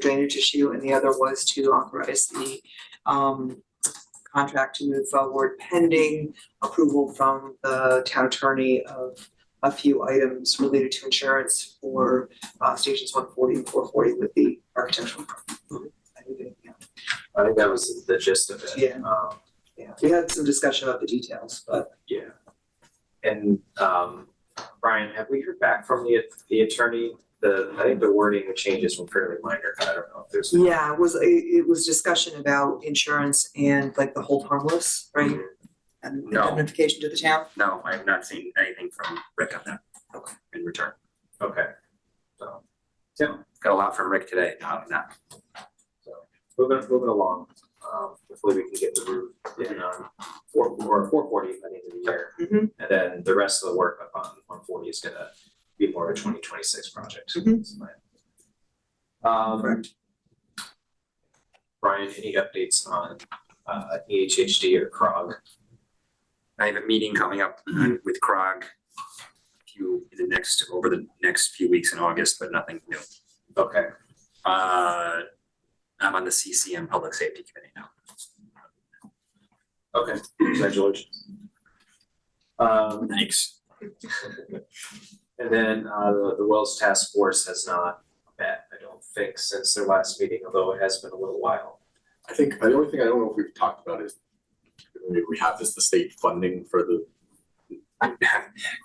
drainage issue, and the other was to authorize the um contract to move forward pending approval from the town attorney of a few items related to insurance for uh stations one forty and four forty with the architectural. firm. I think it- yeah. I think that was the gist of it. Yeah. Um, Yeah, we had some discussion about the details, but yeah. And, um, Brian, have we heard back from the, the attorney? The, I think the wording changes were fairly minor, I don't know if there's. yeah, it was, it it was discussion about insurance and like the hold harmless, right? And No. indemnification to the town. No, I have not seen anything from Rick on that. Okay. In return. Okay. So, Got a lot from Rick today, not not. moving, moving along, um, hopefully we can get the roof in on four, or four forty by the end of the year. Mhm. And then the rest of the work up on one forty is gonna be more of a twenty twenty-six project. Mhm. is my- Um, Brian, any updates on, uh, EHHD or CROG? I have a meeting coming up with Krog. Few, the next, over the next few weeks in August, but nothing new. Okay, Uh, I'm on the CCM Public Safety Committee now. okay, congratulations. Um, Thanks. And then uh the the Wells Task Force has not met, I don't think, since their last meeting, although it has been a little while. I think, the only thing I don't know if we've talked about is, I mean, we have this, the state funding for the,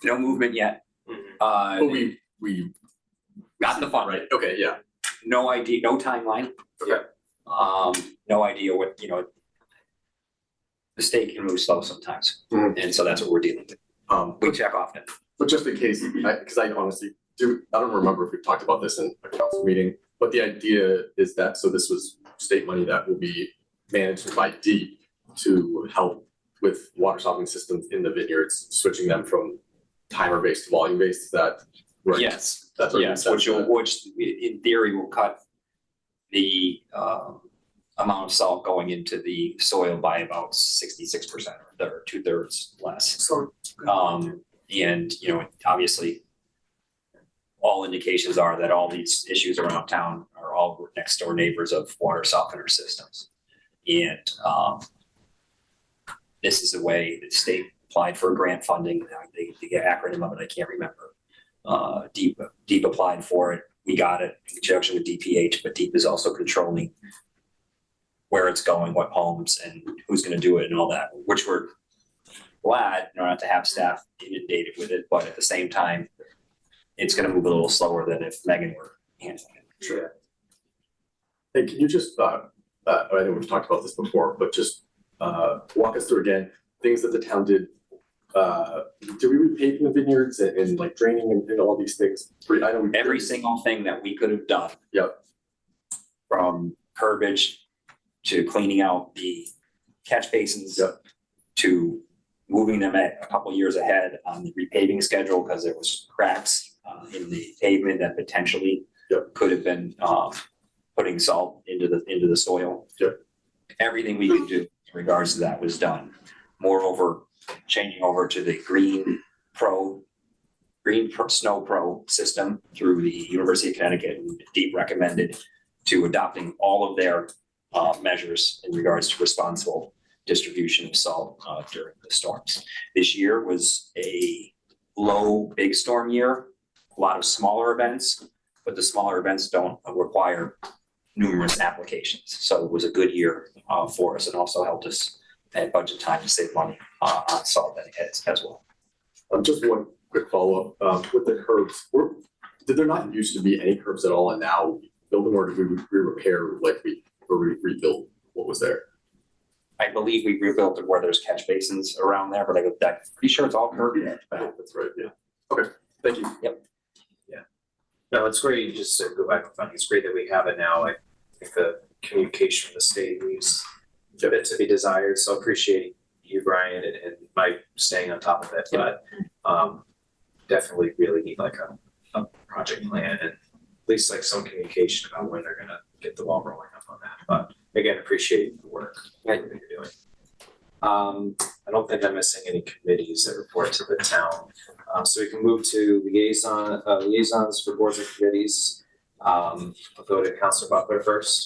No movement yet. Uh, but oh, we, we, got the fund, right, okay, yeah. no idea, no timeline. Okay. Um, no idea what, you know. The state can move slow sometimes, Mhm. and so that's what we're dealing with. Um, We check often. but just in case, I, cause I honestly do, I don't remember if we've talked about this in a council meeting, but the idea is that, so this was state money that will be managed by deep to help with water softening systems in the vineyards, switching them from timer-based to volume-based, is that right? Yes, That's what yes, it which will, says. which i- in theory will cut the um amount of salt going into the soil by about sixty-six percent or two thirds less. So. Um, and, you know, obviously, all indications are that all these issues around town are all next door neighbors of water softener systems. And, um, this is the way the state applied for grant funding, the, the acronym of it, I can't remember. Uh, deep, deep applied for it, we got it in conjunction with DPH, but deep is also controlling where it's going, what homes and who's gonna do it and all that, which we're glad you know, not to have staff inundated with it, but at the same time, it's gonna move a little slower than if Megan were handling it. Sure. Hey, can you just, uh, uh, I know we've talked about this before, but just, uh, walk us through again, things that the town did. Uh, do we repave the vineyards and, and like draining and, and all these things? Three- I know we- Every single thing that we could have done. Yep. From curbage to cleaning out the catch basins. Yep. To moving them at a couple years ahead on the repaving schedule because there was cracks uh, in the pavement that potentially Yep. could have been um, putting salt into the, into the soil. Yep. Everything we could do in regards to that was done. Moreover, changing over to the green pro, green Pro- snow pro system through the University of Connecticut and deep recommended to adopting all of their uh, measures in regards to responsible distribution of salt uh, during the storms. This year was a low big storm year, a lot of smaller events, but the smaller events don't require numerous applications. So it was a good year uh, for us and also helped us at budget time to save money uh, on salt as, as well. Um, just one quick follow-up, um, with the curbs, were, did there not used to be any curbs at all and now we build them or did we, we repair like we, or we rebuild what was there? I believe we rebuilt it where there's catch basins around there, but I, I'm pretty sure it's all curb. Yeah, that's right, yeah. Okay, thank you. No, it's great, just to go back to funding, it's great that we have it now, I think the communication from the state leaves a bit to be desired, so appreciate you, Brian, and and Mike staying on top of it, but um definitely really need like a a project plan and at least like some communication about when they're gonna get the ball rolling up on that, but again, appreciate the work that you're doing. Um, I don't think I'm missing any committees that report to the Um, town. Uh, so we can move to liaison, uh, liaisons for boards and committees. Uh, Um, I'll go to Counselor Buckler first.